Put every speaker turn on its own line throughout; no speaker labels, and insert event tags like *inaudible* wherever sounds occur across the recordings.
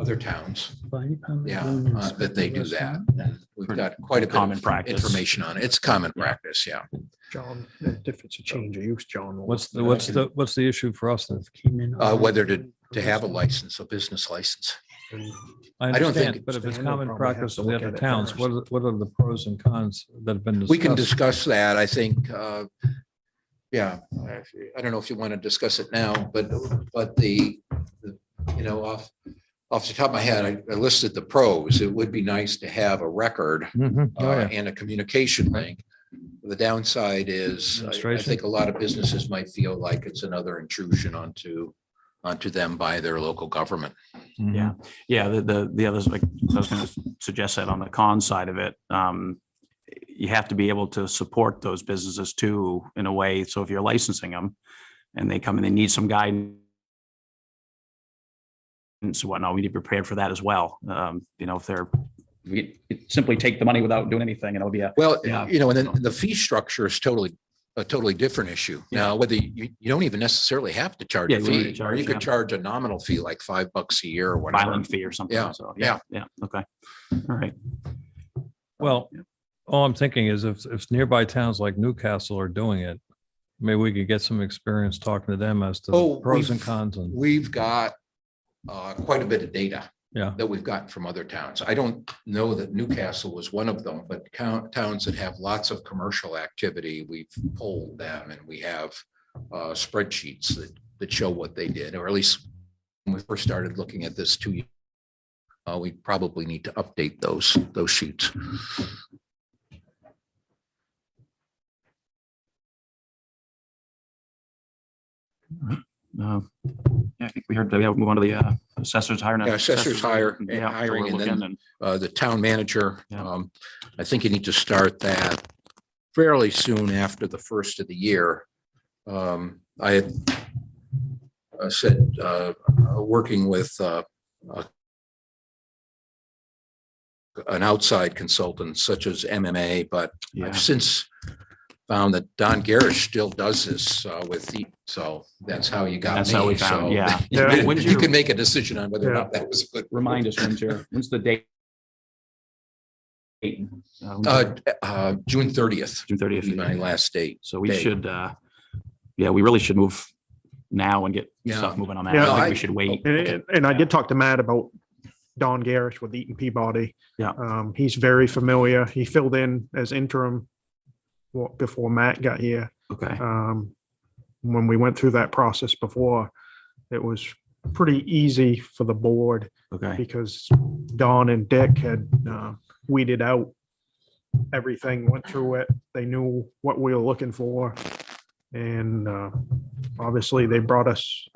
other towns.
Fire department
Yeah,
building
uh, that they do that.
inspector restaurant.
We've
Pretty
got quite a bit
common
of
practice.
information on it. It's common practice, yeah.
John, if it's a change of use, John. will-
What's the, what's the, what's the issue for us then?
Came in
Uh,
under-
whether to, to have a license, a business license. I don't think
understand, But if
it's-
it's
We'll
common
probably have
practice
to
in the
look
other
at it
towns,
first.
what are, what are the pros and cons that have been discussed?
We can discuss that, I think, uh, yeah. I don't know if you want to discuss it now, but, but the, the, you know, off, off the top of my head, I- I listed the pros. It would be nice to have a record
Mhm. Oh,
uh,
yeah.
and a communication link. The downside is, I- I
Administration.
think a lot of businesses might feel like it's another intrusion onto, onto them by their local government.
Mhm.
Yeah, yeah, the, the, the others, like, I was gonna suggest that on the con side of it, um, you have to be able to support those businesses too, in a way, so if you're licensing them and they come and they need some guidance and so whatnot, we need to be prepared for that as well, um, you know, if they're, we simply take the money without doing anything and it'll be a,
Well,
Yeah.
you know, and then the fee structure is totally, a totally different issue. Now, whether you, you don't even necessarily have to charge
Yeah,
a
you don't
fee,
need to
or you
charge,
could
yeah.
charge a nominal fee like five bucks a year or whatever.
filing fee or something,
Yeah,
so, yeah, yeah, okay, all right.
Well, all I'm thinking is if, if nearby towns like Newcastle are doing it, maybe we could get some experience talking to them as to
Oh,
the pros and
we've-
cons and.
We've got uh, quite a bit of data.
Yeah.
That we've gotten from other towns. I don't know that Newcastle was one of them, but count towns that have lots of commercial activity, we've polled them and we have uh, spreadsheets that, that show what they did, or at least when we first started looking at this two years. Uh, we probably need to update those, those sheets.
Uh, Yeah, I think we heard, that we have to move on to the uh, assessors hire.
Yeah, assessors hire-
Yeah, so we're
hiring and then-
looking and-
uh, the town manager.
Yeah.
Um, I think you need to start that fairly soon after the first of the year. Um, I had uh, said, uh, uh, working with, uh, uh, an outside consultant such as MMA, but
Yeah.
I've since found that Don Garish still does this, uh, with the, so that's how you got me.
That's how we found,
So
yeah.
Yeah.
*laughs*
When's
You
your-
can make a decision on whether or not that was a good.
*laughs* Remind us, when's your, when's the date? Date, uh, when's
Uh,
your-
uh, June thirtieth.
June
would be my
thirtieth.
last date.
So we
day.
should, uh, yeah, we really should move now and get
Yeah.
stuff moving on that. I
Yeah,
don't think
I-
we should wait.
And, and- and I did talk to Matt about Don Garrish with Eaton Peabody.
Yeah.
Um, he's very familiar. He filled in as interim wa- before Matt got here.
Okay,
Um, when we went through that process before, it was pretty easy for the board
okay,
because Don and Dick had uh, weeded out everything, went through it. They knew what we were looking for. And uh, obviously, they brought us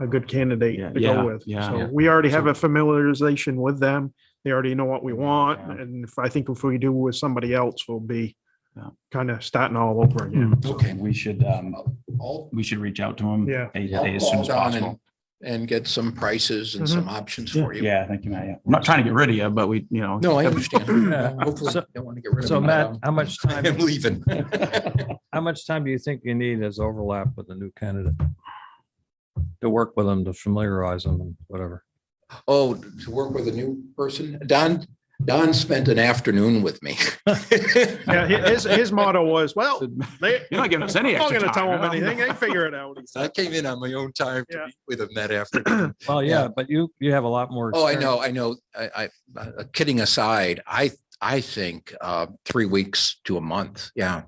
a good
Yeah,
candidate to
yeah,
go with.
yeah.
So
Yeah.
we already have a familiarization with them. They already know what we want.
Yeah.
And if I think if we do with somebody else, we'll be
Yeah. Hmm.
kind of starting all over again.
Okay.
we should, um,
I'll,
we should reach out to him.
Uh, Yeah.
a-
I'll
a- As soon
call
as
Don
possible.
and- And get some prices and some options for you.
Yeah, thank you, Matt. yeah. I'm not trying to get rid of you, but we, you know.
No, I understand.
Yeah.
Hopefully,
So-
you don't want to get rid of.
so
me, but,
Matt, uh,
um,
how much
*laughs*
time-
I'm leaving.
How much time do you think you need as overlap with the new candidate? To work with them, to familiarize them and whatever.
Oh, to work with a new person? Don, Don spent an afternoon with me.
Yeah, hi- his, his motto was, well, they,
You're not giving us any
I'm not
extra
going to tell
time.
them anything. They figure it out.
I came in on my own time to
Yeah.
meet with him that afternoon.
Well,
Yeah.
yeah, but you, you have a lot more.
Oh, I
experience.
know, I know. I, I, uh, kidding aside, I, I think, uh, three weeks to a month. Yeah.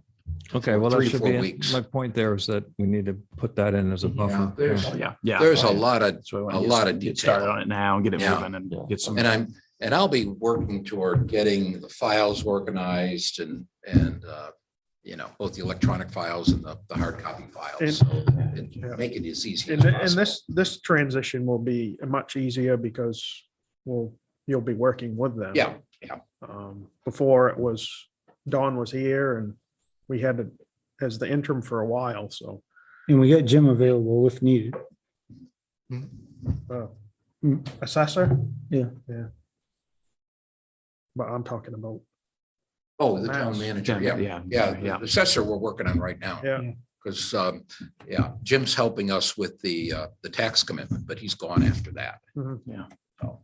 Okay, well, that
three,
should
four
be,
weeks.
it. my point there is that we need to put that in as a buffer.
there's-
Yeah.
Yeah, yeah.
There's a
Oh, yeah.
lot of
So we
a
want to
lot of
get started
detail.
on it now and get it
Yeah.
moving and get some.
And I'm, and I'll be working toward getting the files organized and, and, uh, you know, both the electronic files and the, the hard copy
And-
files. So and
Yeah.
Make it as easy
And,
as
thi- and
possible.
this, this transition will be much easier because, well, you'll be working with them.
Yeah,
Um, before it was, Dawn was here and we had it as the interim for a while, so.
And we got Jim available if needed.
Mm-hmm.
uh, Assessor?
Yeah.
Yeah. But I'm talking about,
oh, the town
Mass.
manager, yeah,
Yeah.
yeah, the assessor we're working on right now.
yeah,
Because, um, yeah, Jim's helping us with the, uh, the tax commitment, but he's gone after that.
Mhm.
Yeah.
So,